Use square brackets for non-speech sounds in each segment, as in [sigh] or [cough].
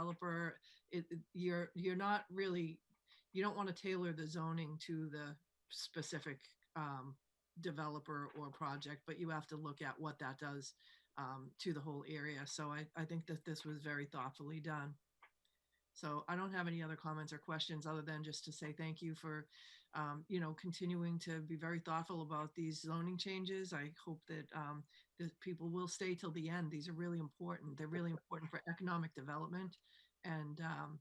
developer, it, it- you're, you're not really, you don't want to tailor the zoning to the specific um, developer or project, but you have to look at what that does um, to the whole area. So I, I think that this was very thoughtfully done. So I don't have any other comments or questions other than just to say thank you for, um, you know, continuing to be very thoughtful about these zoning changes. I hope that um, that people will stay till the end. These are really important. They're really important for economic development. And um,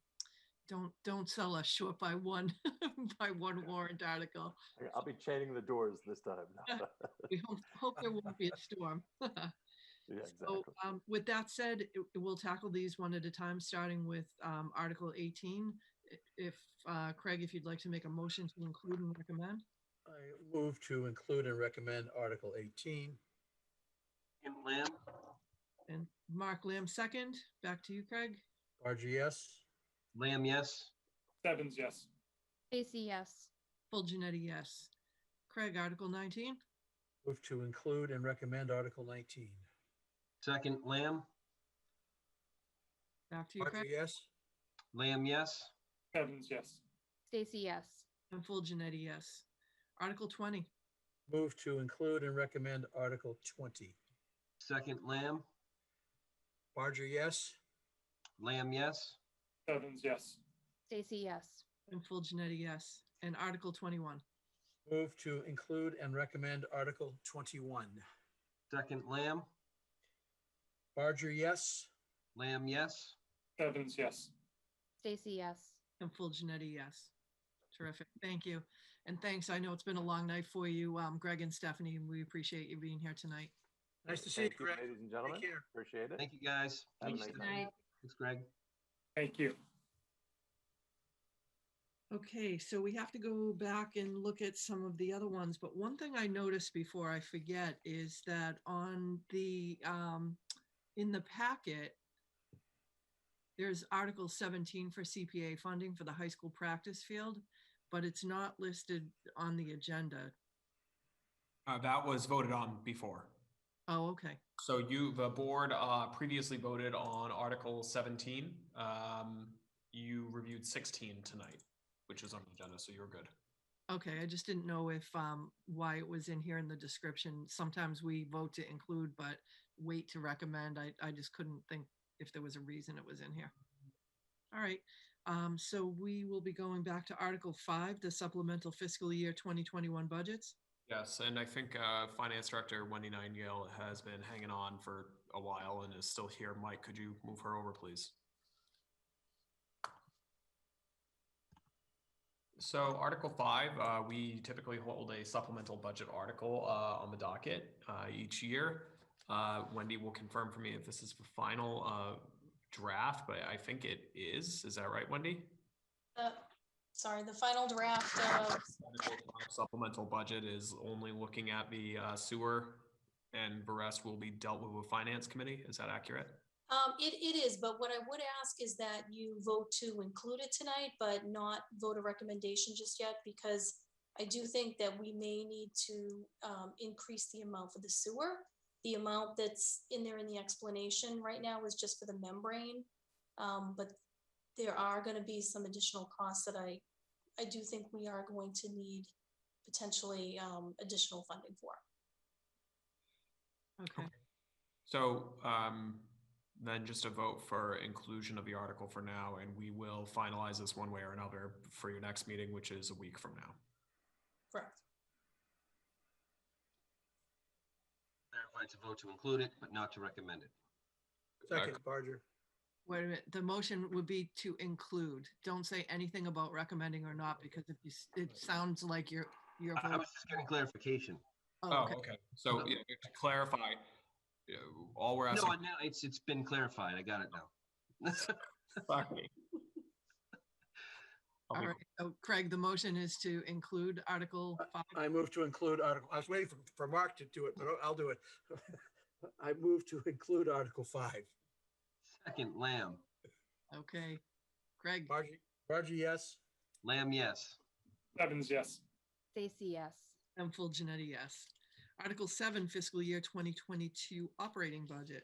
don't, don't sell us short by one, [laughs] by one warrant article. I- I'll be chaining the doors this time. [laughs] [laughs] No, We hope, hope there won't [laughs] be a storm. Yeah, So exactly. um, with that said, it- we'll tackle these one at a time, starting with um, Article 18. I- If, uh, Craig, if you'd like to make a motion to include and recommend. I move to include and recommend Article 18. Jim Lamb, And Mark Lamb, second. Back to you, Craig. RGS, Lamb, yes. Stebbins, yes. Stacy, yes. Full Janetti, yes. Craig, Article 19. move to include and recommend Article 19. Second, Lamb, Back to you, Craig. RGS, Lamb, yes. Stebbins, yes. Stacy, yes. And Full Janetti, yes. Article 20. move to include and recommend Article 20. Second, Lamb, RGS, Lamb, yes. Stebbins, yes. Stacy, yes. And Full Janetti, yes. And Article 21. move to include and recommend Article 21. Second, Lamb, RGS, Lamb, yes. Stebbins, yes. Stacy, yes. And full Janetti, yes. Terrific. Thank you. And thanks. I know it's been a long night for you, um, Greg and Stephanie, and we appreciate you being here tonight. Nice to see you, Thank Greg. Ladies and gentlemen, care. appreciate it. Thank you, guys. Have a Thanks, nice Stephanie. night. Thanks, Greg. Thank you. Okay, so we have to go back and look at some of the other ones, but one thing I noticed before I forget is that on the, um, in the packet, there's Article seventeen for CPA funding for the high school practice field, but it's not listed on the agenda. Uh, that was voted on before. Oh, okay. So you, the board, uh, previously voted on Article seventeen. Um, you reviewed sixteen tonight, which is on the agenda, so you're good. Okay, I just didn't know if, um, why it was in here in the description. Sometimes we vote to include, but wait to recommend. I, I just couldn't think if there was a reason it was in here. All right, um, so we will be going back to Article Five, the supplemental fiscal year twenty twenty-one budgets. Yes, and I think, uh, Finance Director Wendy Nightingale has been hanging on for a while and is still here. Mike, could you move her over, please? So Article five, uh, we typically hold a supplemental budget article, uh, on the docket, uh, each year. Uh, Wendy will confirm for me if this is the final, uh, draft, but I think it is. Is that right, Wendy? Uh, Sorry, the final draft of, Article five Supplemental budget is only looking at the uh, sewer and the rest will be dealt with with finance committee. Is that accurate? um, it, it is, but what I would ask is that you vote to include it tonight, but not vote a recommendation just yet, because I do think that we may need to, um, increase the amount for the sewer. The amount that's in there in the explanation right now is just for the membrane. Um, but there are gonna be some additional costs that I, I do think we are going to need potentially, um, additional funding for. Okay, So um, then just a vote for inclusion of the article for now, and we will finalize this one way or another for your next meeting, which is a week from now. Correct. Clarify to vote to include it, but not to recommend it. Second, Barger. wait a minute, the motion would be to include. Don't say anything about recommending or not, because if you, s- it sounds like you're, you're. I I voting- was just getting clarification. Oh, Oh, okay. okay. So yeah, to clarify, uh, all we're No, asking. I know, it's, it's been clarified. I got it now. [laughs] Fuck me. All right, so Craig, the motion is to include Article Five. I move to include Article, I was waiting for, for Mark to do it, but I'll do it. [laughs] I move to include Article 5. Second, Lamb, Okay, Greg, Barger, Barger, yes. Lamb, yes. Stebbins, yes. Stacy, yes. and full Janetti, yes. Article seven fiscal year twenty twenty-two operating budget.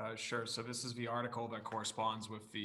Uh, sure. So this is the article that corresponds with the